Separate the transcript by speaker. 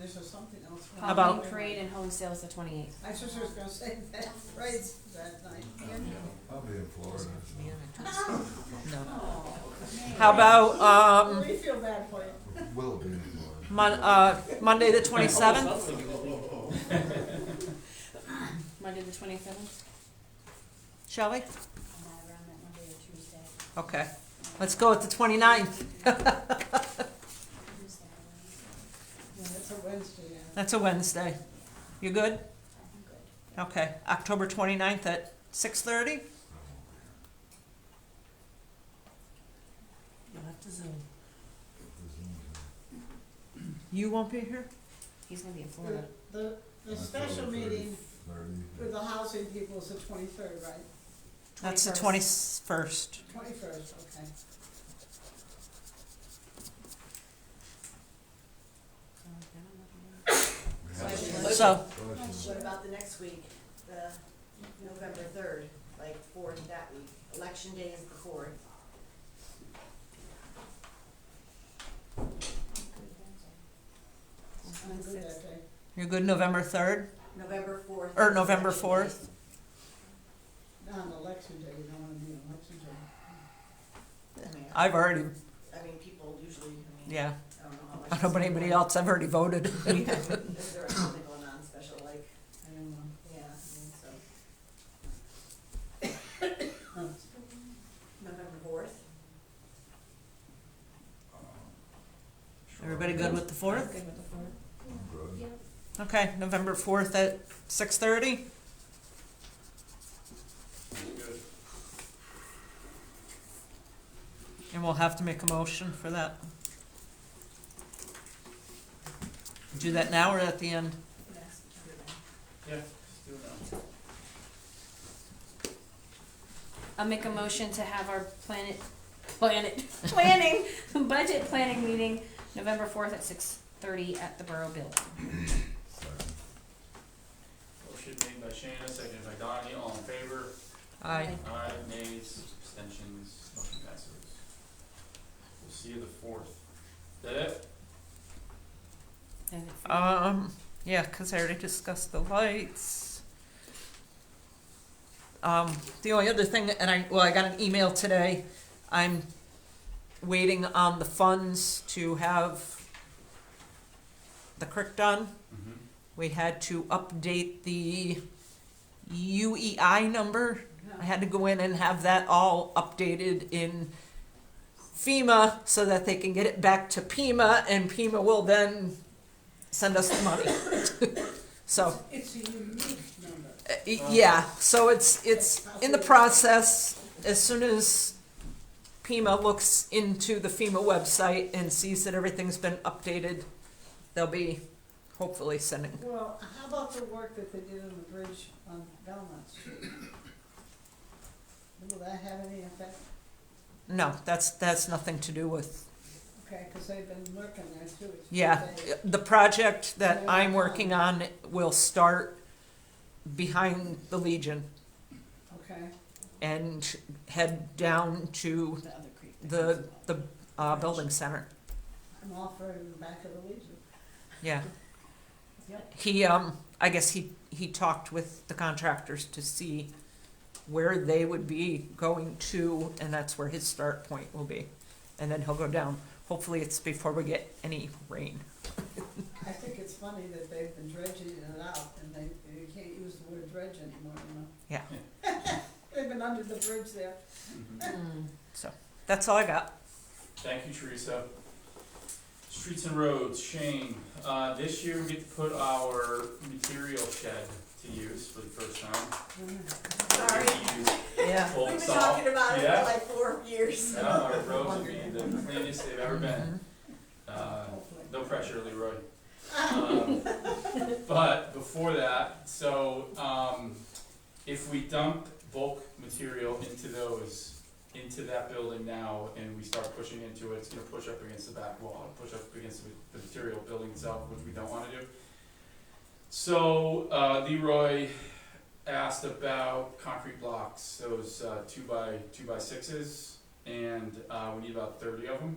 Speaker 1: this or something else.
Speaker 2: Halloween
Speaker 3: About-
Speaker 2: parade and home sales the twenty eighth.
Speaker 1: I just was gonna say that, right, that night.
Speaker 4: I'll be in Florida.
Speaker 3: How about, um,
Speaker 1: We feel bad for you.
Speaker 4: Will be in Florida.
Speaker 3: Mon- uh, Monday the twenty-seventh?
Speaker 2: Monday the twenty seventh?
Speaker 3: Shall we?
Speaker 2: I'm not around that Monday or Tuesday.
Speaker 3: Okay, let's go with the twenty-ninth.
Speaker 2: Tuesday.
Speaker 1: Yeah, it's a Wednesday, yeah.
Speaker 3: That's a Wednesday. You good?
Speaker 2: I'm good.
Speaker 3: Okay, October twenty-ninth at six-thirty?
Speaker 5: You'll have to zoom.
Speaker 3: You won't be here?
Speaker 2: He's gonna be in Florida.
Speaker 1: The- The, the special meeting with the housing people is the twenty-third, right?
Speaker 3: That's the
Speaker 2: 21st.
Speaker 3: twenty-first.
Speaker 1: Twenty-first, okay.
Speaker 2: So, I don't know if I'm-
Speaker 3: So,
Speaker 6: What about the next week, the November third, like fourth that week, election day is the fourth.
Speaker 1: I'm good that day.
Speaker 3: you're good November third,
Speaker 6: November fourth.
Speaker 3: or November fourth?
Speaker 1: Not on election day, you don't wanna be on election day.
Speaker 3: I've already,
Speaker 6: I mean, people usually, I mean,
Speaker 3: yeah,
Speaker 6: I don't know how much.
Speaker 3: I don't know about anybody else, I've already voted.
Speaker 6: Is there something going on special, like,
Speaker 1: I don't know.
Speaker 6: yeah, I mean, so, November fourth,
Speaker 4: uh,
Speaker 3: Everybody good with the
Speaker 2: I'm
Speaker 3: fourth?
Speaker 2: good with the fourth.
Speaker 3: Okay, November fourth at six-thirty? And we'll have to make a motion for that. Do that now or at the end?
Speaker 6: next,
Speaker 2: I'll make a motion to have our planet, planet, planning, budget planning meeting, November fourth at six thirty at the Borough Building.
Speaker 7: Motion made by Shana, seconded by Donnie, all in favor?
Speaker 3: Aye.
Speaker 7: Aye, nays, abstentions, motion passes. We'll see you the fourth. Is that it?
Speaker 2: And if-
Speaker 3: Um, yeah, 'cause I already discussed the lights. Um, the only other thing, and I, well, I got an email today, I'm waiting on the funds to have the creek done.
Speaker 7: Mm-hmm.
Speaker 3: We had to update the UEI number. I had to go in and have that all updated in FEMA so that they can get it back to Pima, and Pima will then send us the money. So,
Speaker 1: It's a unique number.
Speaker 3: uh, y- yeah, so it's, it's in the process. As soon as Pima looks into the FEMA website and sees that everything's been updated, they'll be hopefully sending
Speaker 1: Well, how about the work that they did on the bridge on Belmont Street? Will that have any effect?
Speaker 3: No, that's, that's nothing to do with,
Speaker 1: Okay, because they've been working there too. It's been
Speaker 3: yeah.
Speaker 1: days.
Speaker 3: The project that I'm working on will start behind the Legion
Speaker 1: Okay,
Speaker 3: and head down to
Speaker 2: The other creek.
Speaker 3: the, the, uh, building center,
Speaker 1: I'm all for the back of the Legion.
Speaker 3: yeah.
Speaker 1: Yep.
Speaker 3: He, um, I guess he, he talked with the contractors to see where they would be going to, and that's where his start point will be. And then he'll go down. Hopefully it's before we get any rain.
Speaker 1: I think it's funny that they've been dredging it out and they, they can't use the word dredge anymore, you know?
Speaker 3: Yeah.
Speaker 1: They've been under the bridge there.
Speaker 3: That's all I got.
Speaker 7: Mm-hmm. Thank you, Teresa. Streets and roads, Shane, uh, this year we get to put our material shed to use for the first time.
Speaker 6: sorry,
Speaker 3: Yeah.
Speaker 7: Old
Speaker 6: we've been
Speaker 7: saw.
Speaker 6: talking about it for
Speaker 7: Yeah.
Speaker 6: like four years.
Speaker 7: Yeah, our roads will be the cleanest they've ever been. Uh,
Speaker 1: Hopefully.
Speaker 7: No pressure, Leroy. Um, But before that, so, um, if we dump bulk material into those, into that building now, and we start pushing into it, it's gonna push up against the back wall, push up against the, the material building itself, which we don't wanna do. So, uh, Leroy asked about concrete blocks, those, uh, two by, two by sixes, and, uh, we need about thirty of them.